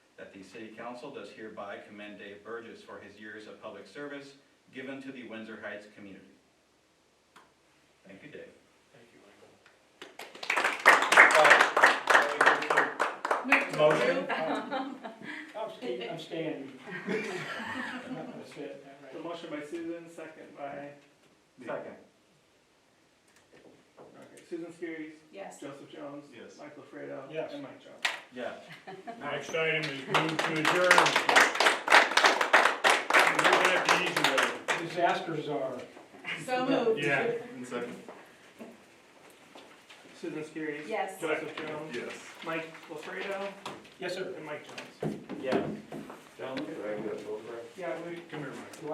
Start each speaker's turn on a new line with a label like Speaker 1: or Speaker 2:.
Speaker 1: City Council does hereby commend Dave Burgess for his years of public service given to the Windsor Heights community. Thank you, Dave.
Speaker 2: Thank you, Michael.
Speaker 1: Motion?
Speaker 2: I'm staying, I'm staying. That's it,
Speaker 3: The
Speaker 2: all
Speaker 3: motion by Susan, second by,
Speaker 1: Second.
Speaker 3: okay, Susan Skiris,
Speaker 4: Yes.
Speaker 3: Joseph Jones.
Speaker 1: Yes.
Speaker 3: Michael Fredo.
Speaker 2: Yes.
Speaker 3: And Mike Jones.
Speaker 1: Yes.
Speaker 2: right. Next item is move to adjourn. We're at the easy way. Disasters are.
Speaker 4: So moved.
Speaker 2: Yeah.
Speaker 3: Susan Skiris.
Speaker 4: Yes.
Speaker 3: Joseph Jones.
Speaker 5: Yes.
Speaker 3: Mike Lafredo
Speaker 2: Yes, sir.
Speaker 3: and Mike Jones.
Speaker 1: Yes.
Speaker 5: Gentlemen, do I have that vote right?
Speaker 3: Yeah, we,
Speaker 2: Come here, Mike.